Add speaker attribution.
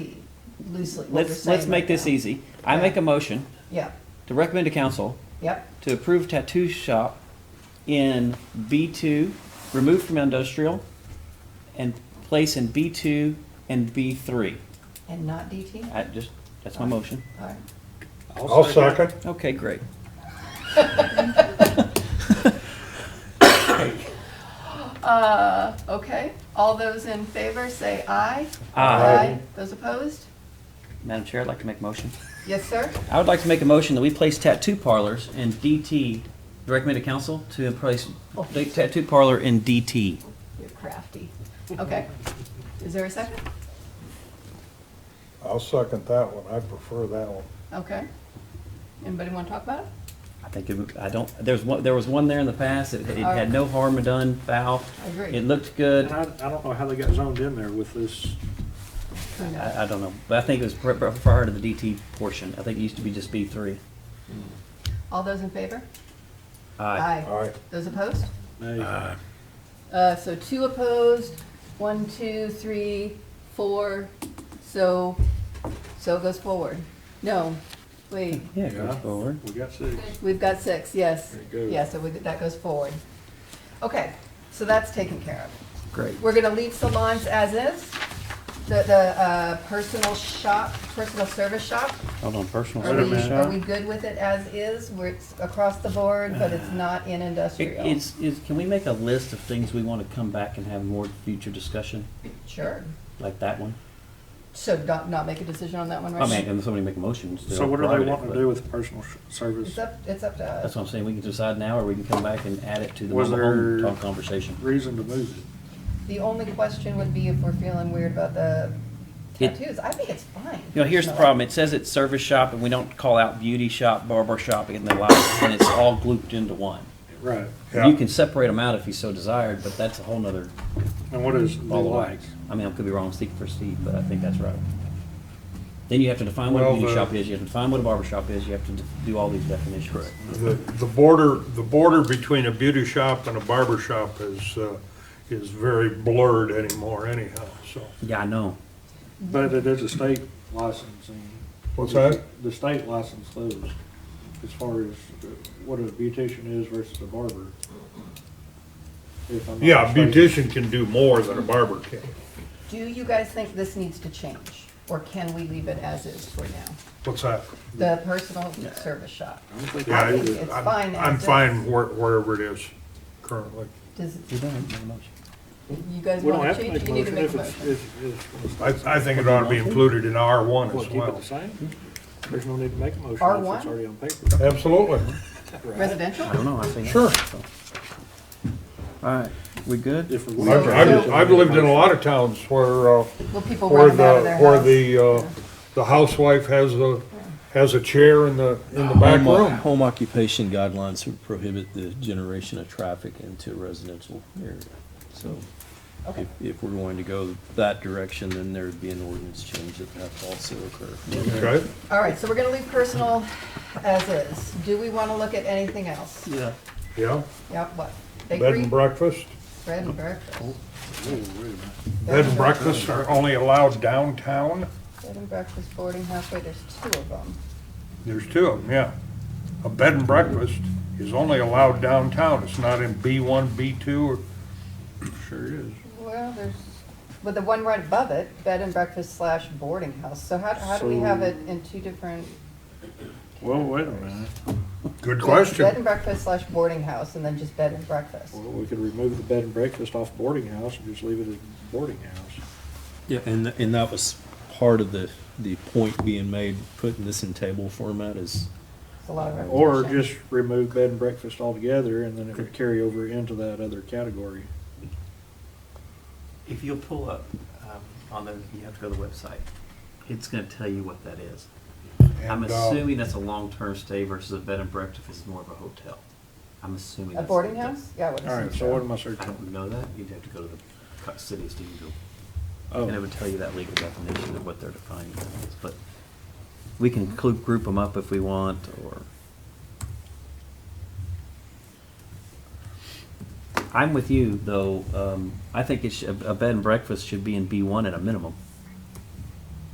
Speaker 1: loosely what we're
Speaker 2: Let's, let's
Speaker 1: saying
Speaker 2: make
Speaker 1: right
Speaker 2: this
Speaker 1: now.
Speaker 2: easy. I
Speaker 1: Yeah.
Speaker 2: make a motion
Speaker 1: Yep,
Speaker 2: to recommend to council
Speaker 1: yep,
Speaker 2: to approve tattoo shop in B2, removed from industrial, and place in B2 and B3.
Speaker 1: and not DT?
Speaker 2: I just, that's my motion.
Speaker 1: All right.
Speaker 3: I'll second.
Speaker 2: Okay, great.
Speaker 4: Uh, okay, all those in favor say aye.
Speaker 2: Uh,
Speaker 4: Those opposed?
Speaker 2: Madam Chair, I'd like to make a motion.
Speaker 1: Yes, sir?
Speaker 2: I would like to make a motion that we place tattoo parlors in DT, recommend to council to place the tattoo parlor in DT.
Speaker 4: You're crafty. Okay. Is there a second?
Speaker 3: I'll second that one. I prefer that one.
Speaker 4: Okay. Anybody want to talk about it?
Speaker 2: I think, it would- I don't, there's one, there was one there in the past, it it had no harm done, foul.
Speaker 1: I agree.
Speaker 2: It looked good.
Speaker 5: And I, I don't know how they got zoned in there with this,
Speaker 4: Who knows?
Speaker 2: I, I don't know, but I think it was pr- pr- prior to the DT portion. I think it used to be just B three.
Speaker 4: All those in favor?
Speaker 3: All right,
Speaker 4: Those opposed?
Speaker 5: they,
Speaker 4: Uh, so two opposed, one, two, three, four, so, so it goes forward. No, wait,
Speaker 2: Yeah, it goes
Speaker 5: Yeah.
Speaker 2: forward.
Speaker 5: we got six.
Speaker 4: we've got six, yes.
Speaker 5: There you go.
Speaker 4: Yeah, so we, that goes forward. Okay, so that's taken care of.
Speaker 2: Great.
Speaker 4: We're gonna leave salons as is, the, the, uh, personal shop, personal service shop.
Speaker 2: Hold on, personal
Speaker 4: Are
Speaker 5: Wait a
Speaker 4: we,
Speaker 2: service
Speaker 5: minute.
Speaker 4: are
Speaker 2: shop.
Speaker 4: we good with it as is, where it's across the board, but it's not in
Speaker 2: It-
Speaker 4: industrial?
Speaker 2: It's, is, can we make a list of things we want to come back and have more future discussion,
Speaker 4: Sure,
Speaker 2: like that one?
Speaker 4: so not, not make a decision on that one right
Speaker 2: I
Speaker 4: now?
Speaker 2: mean, and somebody make a motion. it's their
Speaker 5: So what are they
Speaker 2: prerogative,
Speaker 5: wanting to
Speaker 2: but
Speaker 5: do with personal sh- service?
Speaker 4: It's up, it's up to
Speaker 2: That's
Speaker 4: us.
Speaker 2: what I'm saying, we can decide now, or we can come back and add it to the
Speaker 5: Was
Speaker 2: mobile home
Speaker 5: there-
Speaker 2: talk conversation.
Speaker 5: Reason to move it?
Speaker 4: The only question would be if we're feeling weird about the
Speaker 2: It-
Speaker 4: tattoos. I think it's fine.
Speaker 2: You know, here's the problem, it says it's service shop, and we don't call out beauty shop, barber shop, and the like, and it's all grouped into one.
Speaker 5: Right,
Speaker 2: You
Speaker 3: Yeah.
Speaker 2: can separate them out if you so desired, but that's a whole nother
Speaker 5: and what is the
Speaker 2: ball of
Speaker 5: like?
Speaker 2: wax. I mean, I could be wrong, Steve for Steve, but I think that's right. Then you have to define what a
Speaker 3: Well,
Speaker 2: beauty
Speaker 3: the-
Speaker 2: shop is, you have to define what a barber shop is, you have to d- do all these definitions.
Speaker 3: The, the border, the border between a beauty shop and a barber shop is, uh, is very blurred anymore anyhow, so.
Speaker 2: Yeah, I know.
Speaker 5: But it is a state licensing.
Speaker 3: What's that?
Speaker 5: The state license those, as far as uh, what a beautician is versus a barber. If I'm not
Speaker 3: Yeah, a
Speaker 5: mistaken.
Speaker 3: beautician can do more than a barber can.
Speaker 4: Do you guys think this needs to change, or can we leave it as is for now?
Speaker 3: What's that?
Speaker 4: The personal service shop.
Speaker 5: I don't think
Speaker 3: Yeah,
Speaker 4: I think
Speaker 3: it-
Speaker 4: it's
Speaker 3: I'm-
Speaker 4: fine as
Speaker 3: I'm
Speaker 4: is.
Speaker 3: fine where- wherever it is currently.
Speaker 4: Does,
Speaker 2: You don't have to make a motion.
Speaker 4: you guys
Speaker 5: We don't
Speaker 4: want
Speaker 5: have
Speaker 4: to
Speaker 5: to
Speaker 4: change?
Speaker 5: make
Speaker 4: it?
Speaker 5: a
Speaker 4: You need to
Speaker 5: motion
Speaker 4: make
Speaker 5: if
Speaker 4: a
Speaker 5: it's,
Speaker 4: motion.
Speaker 5: if, if.
Speaker 3: I, I think it ought to be included in R one
Speaker 5: What,
Speaker 3: as
Speaker 5: keep it
Speaker 3: well.
Speaker 5: the same? There's no need to make a motion if it's
Speaker 4: R1?
Speaker 5: already on paper.
Speaker 3: Absolutely.
Speaker 4: Residential?
Speaker 2: I don't know, I think.
Speaker 3: Sure.
Speaker 2: All right, we good?
Speaker 5: If we're-
Speaker 3: I've, I've, I've lived in a lot of towns where, uh,
Speaker 4: Will people
Speaker 3: Or
Speaker 4: run them out of
Speaker 3: the,
Speaker 4: their
Speaker 3: or
Speaker 4: house?
Speaker 3: the, uh, the housewife has a, has a chair in the, in the back
Speaker 6: Home oc-
Speaker 3: room.
Speaker 6: home occupation guidelines would prohibit the generation of traffic into a residential area. So
Speaker 4: Okay.
Speaker 6: if, if we're going to go that direction, then there'd be an ordinance change that would have to also occur.
Speaker 3: Okay,
Speaker 4: All right, so we're gonna leave personal as is. Do we want to look at anything else?
Speaker 5: Yeah.
Speaker 3: yeah,
Speaker 4: Yep, what?
Speaker 3: bed
Speaker 4: Bakery,
Speaker 3: and breakfast.
Speaker 4: bread and breakfast.
Speaker 5: Ooh, wait a minute.
Speaker 3: Bed and breakfasts are only allowed downtown.
Speaker 4: Bed and breakfast, boarding house, wait, there's two of them.
Speaker 3: There's two of them, yeah. A bed and breakfast is only allowed downtown. It's not in B one, B two, or, sure is.
Speaker 4: Well, there's, but the one right above it, bed and breakfast slash boarding house, so how, how do we have it in two different?
Speaker 5: Well, wait a minute.
Speaker 3: Good
Speaker 4: Bed
Speaker 3: question.
Speaker 4: and breakfast slash boarding house, and then just bed and breakfast.
Speaker 5: Well, we could remove the bed and breakfast off boarding house and just leave it as boarding house.
Speaker 6: Yeah, and, th- and that was part of the, the point being made, putting this in table format is,
Speaker 4: It's a lot of
Speaker 5: Or
Speaker 4: repetition.
Speaker 5: just remove bed and breakfast altogether and then it would carry over into that other category.
Speaker 2: If you'll pull up, um, on the, you have to go to the website. It's gonna tell you what that is. I'm
Speaker 3: And, uh,
Speaker 2: assuming that's a long-term stay versus a bed and breakfast is more of a hotel. I'm assuming.
Speaker 4: A
Speaker 2: that's-
Speaker 4: boarding
Speaker 2: that's-
Speaker 4: house? Yeah, I would
Speaker 5: All
Speaker 4: assume
Speaker 5: right, so what
Speaker 4: so.
Speaker 5: am I searching?
Speaker 2: I don't know that. You'd have to go to the cu- city of Stephenville.
Speaker 5: Oh,
Speaker 2: And it would tell you that legal definition of what they're defining it as, but we can clu- group them up if we want, or. I'm with you, though, um, I think it should, a bed and breakfast should be in B one at a minimum.